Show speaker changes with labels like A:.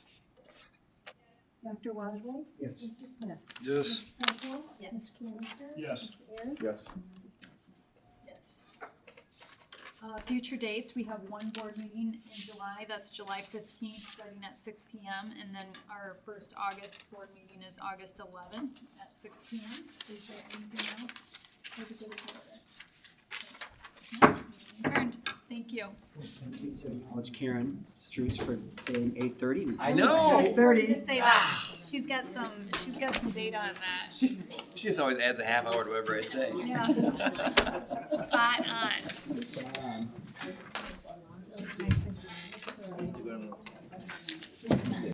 A: Dr. Wadsworth?
B: Yes.
A: Mr. Smith?
C: Yes.
A: Mrs. Claypool?
D: Yes.
A: Mr. Canister?
C: Yes.
A: Mr. Ayers?
B: Yes.
A: And Mrs. Blackman.
D: Yes. Uh, future dates, we have one board meeting in July, that's July fifteenth, starting at six P M. And then our first August board meeting is August eleventh at six P M. Is there anything else for the good of the order? No, meeting Adjourned, thank you.
B: Thank you to acknowledge Karen Streets for being eight thirty.
E: I
D: know.
B: Eight
D: To
B: thirty.
D: say that, she's got some, she's got some data on that,
E: She, she just always adds a half hour to whatever I say.
D: yeah, spot on.